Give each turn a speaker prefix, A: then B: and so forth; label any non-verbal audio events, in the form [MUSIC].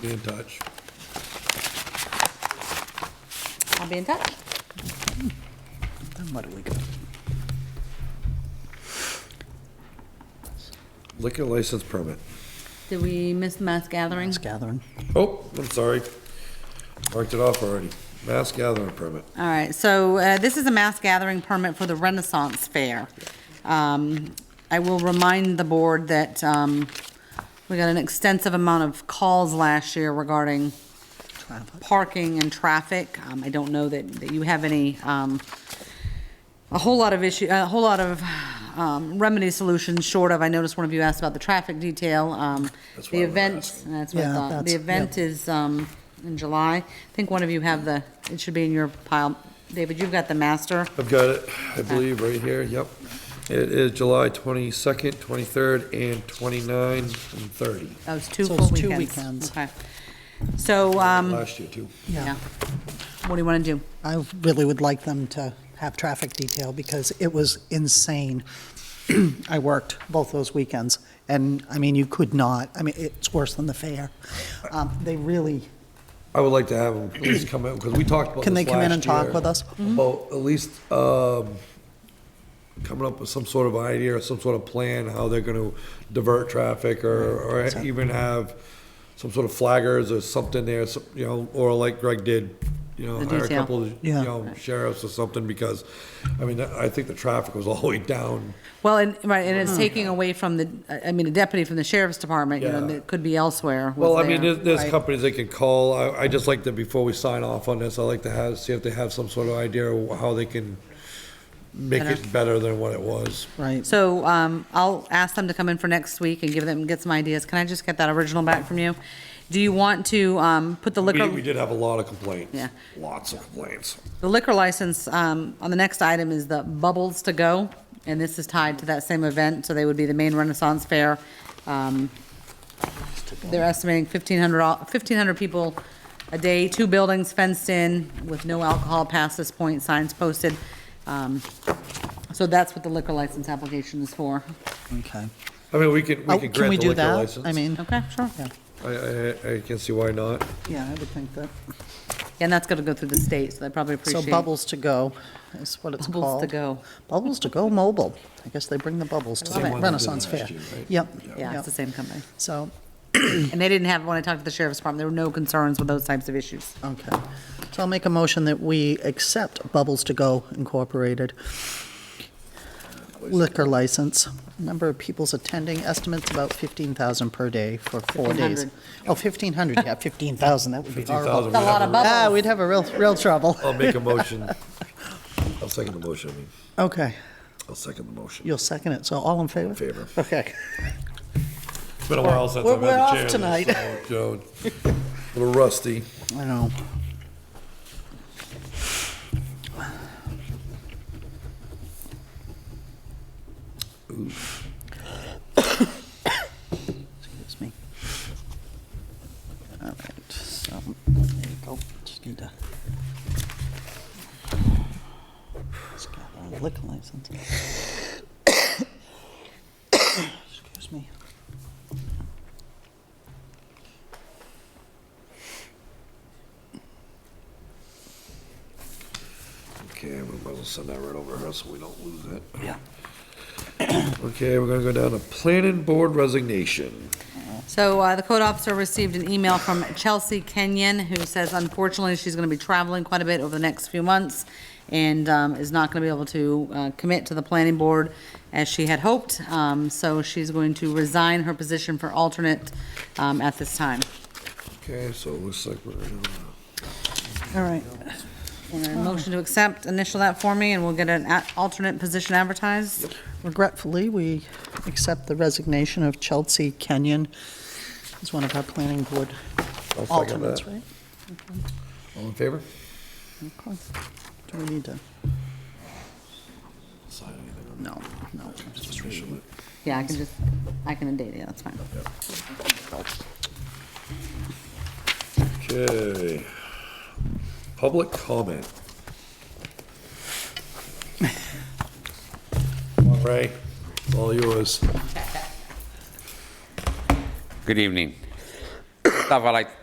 A: be in touch.
B: I'll be in touch.
C: Then where do we go?
A: Liquor license permit.
B: Did we miss mass gathering?
C: It's gathering.
A: Oh, I'm sorry. Marked it off already. Mass gathering permit.
B: All right, so uh, this is a mass gathering permit for the Renaissance Fair. Um, I will remind the board that um, we got an extensive amount of calls last year regarding parking and traffic. Um, I don't know that, that you have any, um, a whole lot of issue, a whole lot of um, remedy solutions short of, I noticed one of you asked about the traffic detail. um,
A: That's why
B: The
A: we're
B: event,
A: asking.
B: that's what I
C: Yeah,
B: thought. The
C: that's-
B: event is um, in July. I think one of you have the, it should be in your pile. David, you've got the master.
A: I've got it, I believe, right here, yep. It is July 22nd, 23rd, and 29 and 30.
B: That was two
C: So
B: full
C: it's
B: weekends.
C: two weekends.
B: Okay. So, um,
A: Last year, too.
B: yeah.
C: Yeah.
B: What do you want to do?
C: I really would like them to have traffic detail because it was insane. [CLEARS THROAT] I worked both those weekends and, I mean, you could not, I mean, it's worse than the fair. Um, They really,
A: I would like to have them at least come in, because we talked about this last year.
C: Can they come in and talk with us?
B: Mm-hmm.
A: About at least um, coming up with some sort of idea or some sort of plan, how they're going to divert traffic or or even have some sort of flaggers or something there, some- you know, or like Greg did, you know,
B: The
A: hire a
B: detail.
A: couple, of you
C: Yeah.
A: know, sheriffs or something, because, I mean, I think the traffic was all the way down.
B: Well, and, right, and
C: Hmm.
B: it's taking away from the, I- I mean, a deputy from the sheriff's department, you know,
A: Yeah.
B: that could be elsewhere. was
A: Well, I
B: there.
A: mean, there's, there's
C: Right.
A: companies they can call. I, I just like to, before we sign off on this, I like to have, see if they have some sort of idea of how they can make it better than what it was.
C: right,
B: So um, I'll ask them to come in for next week and give them, get some ideas. Can I just get that original back from you? Do you want to um, put the
A: We,
B: liquor?
A: we did have a lot of complaints.
B: Yeah.
A: Lots of complaints.
B: The liquor license, um, on the next item is the Bubbles to Go, and this is tied to that same event, so they would be the main Renaissance Fair. Um, They're estimating 1,500 all- 1,500 people a day, two buildings fenced in with no alcohol past this point, signs posted. Um, So that's what the liquor license application is for.
C: okay.
A: I mean, we could, we
C: Oh,
A: could
C: Can we
A: grant the
C: do
A: liquor
C: that?
A: license.
C: I mean,
B: Okay, sure.
C: yeah,
A: I, I, I can see why not.
C: yeah, I would think that.
B: And that's gonna go through the state, so they probably
C: So
B: appreciate.
C: Bubbles to Go is what it's
B: Bubbles
C: called.
B: to Go.
C: Bubbles to Go Mobile. I guess they bring the bubbles to
B: love
C: the
B: it.
C: Renaissance Fair.
A: Last year, right?
C: Yep.
B: Yeah,
C: yep.
B: it's the same
C: [CLEARS THROAT]
B: company.
C: So,
B: And they didn't have, when I talked to the sheriff's department, there were no concerns with those types of issues.
C: okay. So I'll make a motion that we accept Bubbles to Go Incorporated liquor license. Number of peoples attending, estimates about 15,000 per day for four days.
B: 1,500.
C: Oh, 1,500, yeah, 15,000, that would be horrible.
A: 15,000,
B: A lot of
A: we'd have
C: Ah,
B: bubbles.
C: we'd have a real, real trouble.
A: a- [LAUGHS] I'll make a motion.
C: [LAUGHS]
A: I'll second the motion. I mean,
C: Okay,
A: I'll second the motion.
C: you'll second it, so all in favor?
A: Favor.
C: Okay.
A: It's been a while since
C: We're-
A: I've had the chair.
C: we're off tonight.
A: so, you
C: [LAUGHS]
A: know, A little rusty.
C: I know. Excuse me. All right, so, there you go, just need to. Just got a liquor license. [COUGHS] Excuse me.
A: Okay, we might as well send that right over her so we don't lose it.
C: Yeah.
A: Okay, we're gonna go down to planning board resignation.
B: So uh, the code officer received an email from Chelsea Kenyon, who says unfortunately she's going to be traveling quite a bit over the next few months and um, is not going to be able to uh, commit to the planning board as she had hoped. Um, So she's going to resign her position for alternate um, at this time.
A: Okay, so it looks like we're, uh,
C: All right,
B: And a Motion to accept, initial that for me, and we'll get an a- alternate position advertised.
C: regretfully, we accept the resignation of Chelsea Kenyon as one of our planning board
A: I'll second
C: alternates,
A: that.
C: right?
A: All in favor?
C: Okay. Do we need to?
A: Sign anything on
C: No, no.
A: this, just initial it.
B: Yeah, I can just, I can date it, that's fine.
A: Okay. Public comment.
C: [LAUGHS]
A: Come on, Ray, it's all yours.
D: Good evening. Stuff I like